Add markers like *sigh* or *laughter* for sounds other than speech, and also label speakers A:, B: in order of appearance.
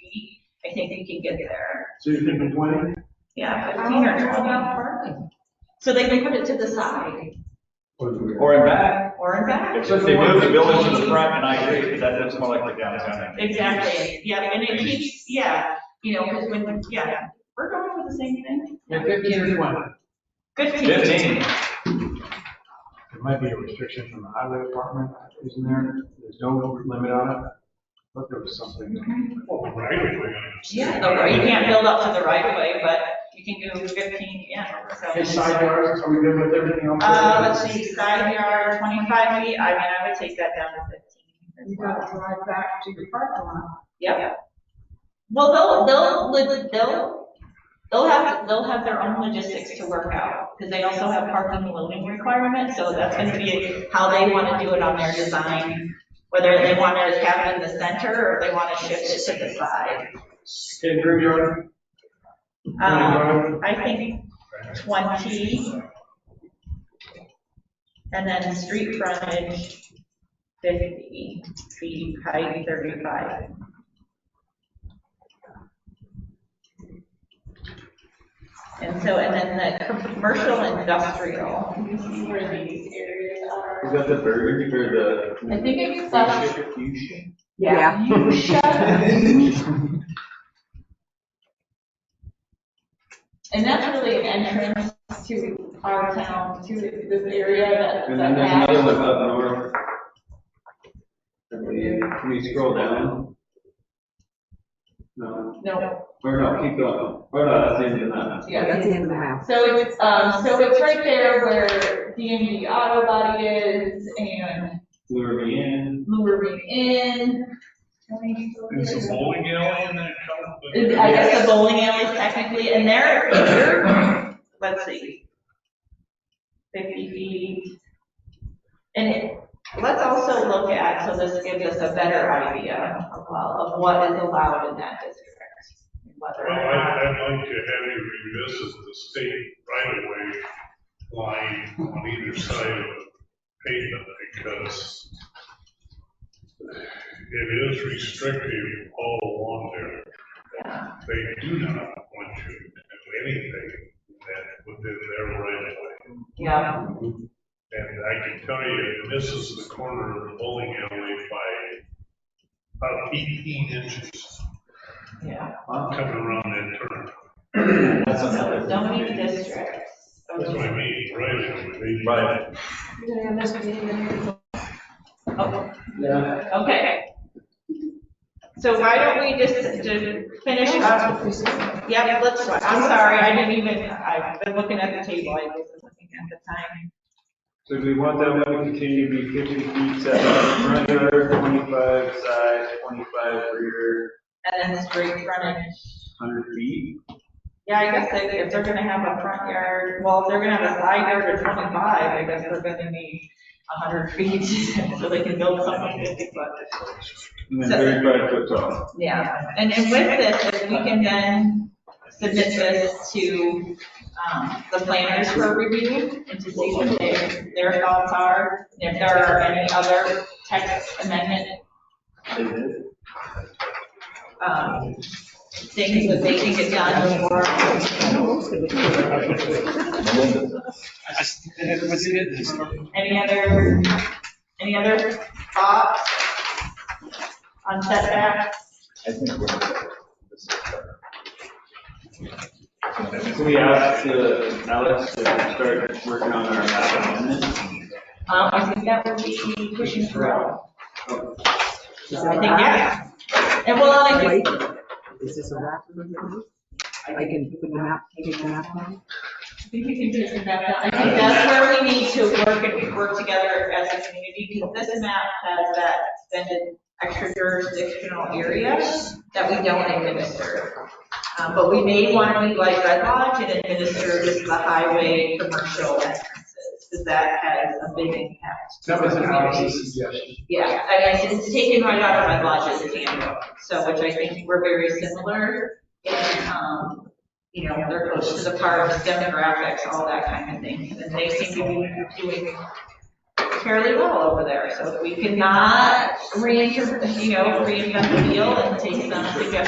A: feet, I think they can get there,
B: So you're thinking twenty?
A: yeah,
C: How
A: fifteen or
C: about
A: twenty.
C: parking?
A: So they can put it to the side,
D: Or in back,
A: Uh, or in back.
D: if they move the village to the front, and I agree, that looks more like the downtown.
A: Exactly, yeah, and it keeps, yeah, you know, because when, yeah, we're going for the same thing.
B: Yeah, fifteen or twenty.
A: Fifteen.
D: Fifteen.
B: There might be a restriction from the highway department, isn't there? There's no over limit on it. But there was something.
A: Yeah, the right- you can't build up to the right of way, but you can do fifteen, yeah, so.
B: Hey, side yards, are we good with everything on?
A: Uh, let's see, side yard, twenty-five feet, I mean, I would take that down to fifteen.
C: You gotta drive back to your parking lot.
A: Yep. Well, they'll, they'll, li- they'll, they'll have, they'll have their own logistics to work out, because they also have parking and loading requirements, so that's gonna be how they wanna do it on their design, whether they wanna have it in the center, or they wanna shift it to the side.
B: Okay, rear yard,
A: Um, I think twenty. And then street frontage, fifty feet, height thirty-five. And so, and then the commercial industrial.
E: Is that the verbiage or the?
C: I think it's, uh,
E: Fusion?
C: yeah.
A: You shut up. And that's really an entrance to our town, to this area that.
E: And then there's another one up north. Can we scroll down? No,
A: No,
E: or no, keep going. Or no, that's in, uh,
A: yeah.
F: That's the end of the map.
A: So it's, um, so it's right there where D and D Auto Body is and
E: lure me in.
A: Lumbering Inn.
G: There's a bowling alley in that couple.
A: I guess the bowling alley is technically, and there, here, let's see. Fifty feet. And it, let's also look at, so this gives us a better idea of, uh, of what is allowed in that district. Whether
G: Well,
A: or not-
G: I, I'd like to have you revisit the state right of way line on either side of the pavement because it is restrictive all along there.
A: yeah.
G: They do not want you to do anything that within their right of way.
A: Yeah,
G: And I can tell you, this is the corner of the bowling alley by about eighteen inches
A: yeah.
G: coming around that turn.
E: That's
A: So
E: another.
A: zoning districts.
G: That's what I mean, right away. They-
D: Right.
A: Oh,
E: Yeah.
A: Okay. So why don't we just, to finish up, yeah, let's, I'm sorry, I didn't even, I've been looking at the table, I wasn't looking at the time.
D: So do we want that one to continue to be fifty feet setback, front yard, twenty-five side, twenty-five rear,
A: And then street frontage.
D: hundred feet?
A: Yeah, I guess if, if they're gonna have a front yard, well, if they're gonna have a side yard of twenty-five, I guess they're gonna need a hundred feet, *laughs* so they can build something fifty foot.
D: And then thirty-five foot tall.
A: Yeah, and then with this, if we can then submit this to, um, the planners for review and to see what their, their thoughts are, and if there are any other text amendment, um, things that they can get done before. Any other, any other thoughts on setbacks?
D: I think we're. Can we ask
E: the uh, Alex to start working on our map amendment?
A: Um, I think that would be pushing through. I think, yeah. And well, I think.
F: Wait, is this a wrap? I can put the map, take the map on?
A: I think we can do some map. I think that's where we need to work and work together as a community, because this map has that extended extra jurisdictional area that we don't administer. Um, But we may want to, like Red Lodge, and administer just the highway commercial entrances, because that has a big impact.
B: that was an obvious suggestion.
A: Yeah, I guess it's taken right out of my lodge's handbook, so, which I think we're very similar in, um, you know, they're close to the parks, demographics, all that kind of thing, and they seem to be doing fairly well over there, so if we cannot reinvent, you know, reinvent the wheel and take some suggestions.